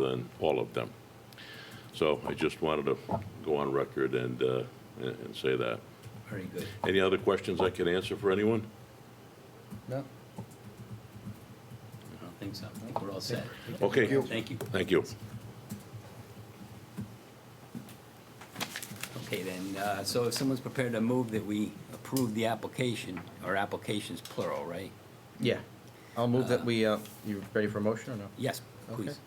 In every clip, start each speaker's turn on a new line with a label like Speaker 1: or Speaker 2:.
Speaker 1: than all of them. So I just wanted to go on record and, uh, and and say that.
Speaker 2: Very good.
Speaker 1: Any other questions I can answer for anyone?
Speaker 2: No?
Speaker 3: I don't think so. I think we're all set.
Speaker 1: Okay.
Speaker 3: Thank you.
Speaker 1: Thank you.
Speaker 3: Okay, then, uh, so if someone's prepared to move that we approve the application, or applications plural, right?
Speaker 4: Yeah. I'll move that we, uh, you ready for a motion or no?
Speaker 3: Yes,
Speaker 4: Okay.
Speaker 3: please.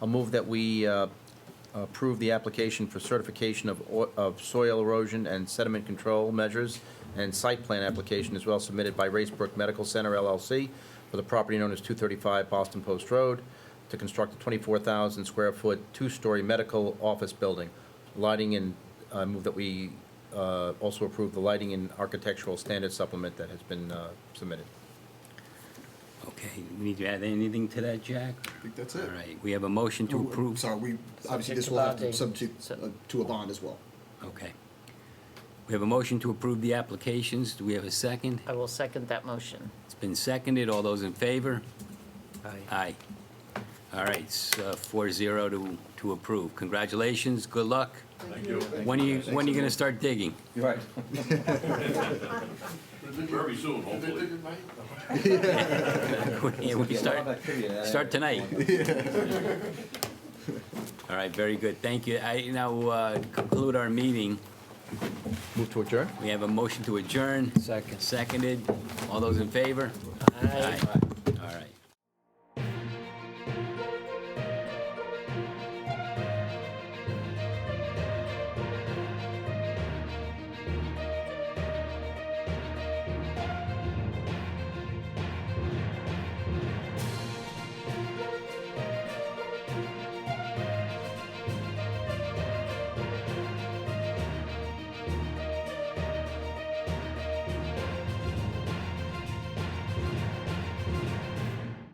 Speaker 4: I'll move that we uh, approve the application for certification of o- of soil erosion and sediment control measures and site plan application as well submitted by Racebrook Medical Center LLC for the property known as 235 Boston Post Road to construct a 24,000 square foot, two-story medical office building. Lighting and, I move that we uh, also approve the lighting and architectural standard supplement that has been uh, submitted.
Speaker 3: Okay, we need to add anything to that, Jack?
Speaker 5: I think that's
Speaker 3: All
Speaker 5: it.
Speaker 3: right, we have a motion to approve.
Speaker 5: Sorry, we, obviously
Speaker 6: Subject
Speaker 5: this
Speaker 6: to
Speaker 5: will have to
Speaker 6: bonding.
Speaker 5: subject uh, to a bond as well.
Speaker 3: Okay. We have a motion to approve the applications. Do we have a second?
Speaker 6: I will second that motion.
Speaker 3: It's been seconded. All those in favor?
Speaker 6: Aye.
Speaker 3: Aye. All right, it's four zero to, to approve. Congratulations, good luck.
Speaker 1: Thank you.
Speaker 3: When are you, when are you gonna start digging?
Speaker 2: Right.
Speaker 1: Very soon, hopefully.
Speaker 3: Yeah, we start, start tonight. All right, very good, thank you. I now uh, conclude our meeting.
Speaker 4: Move to adjourn?
Speaker 3: We have a motion to adjourn. Second. Seconded. All those in favor?
Speaker 6: Aye.
Speaker 3: Aye.